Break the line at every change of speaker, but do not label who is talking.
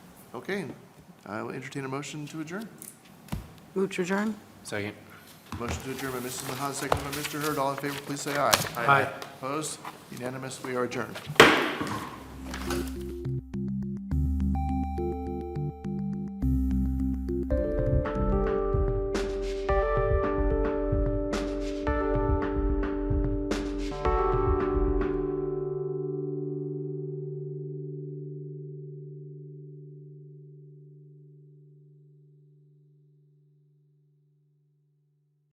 Okay, I will entertain a motion to adjourn.
Move to adjourn?
Second.
Motion to adjourn by Mrs. Mahan, second by Mr. Hurd. All in favor, please say aye.
Aye.
Opposed? Unanimous, we are adjourned.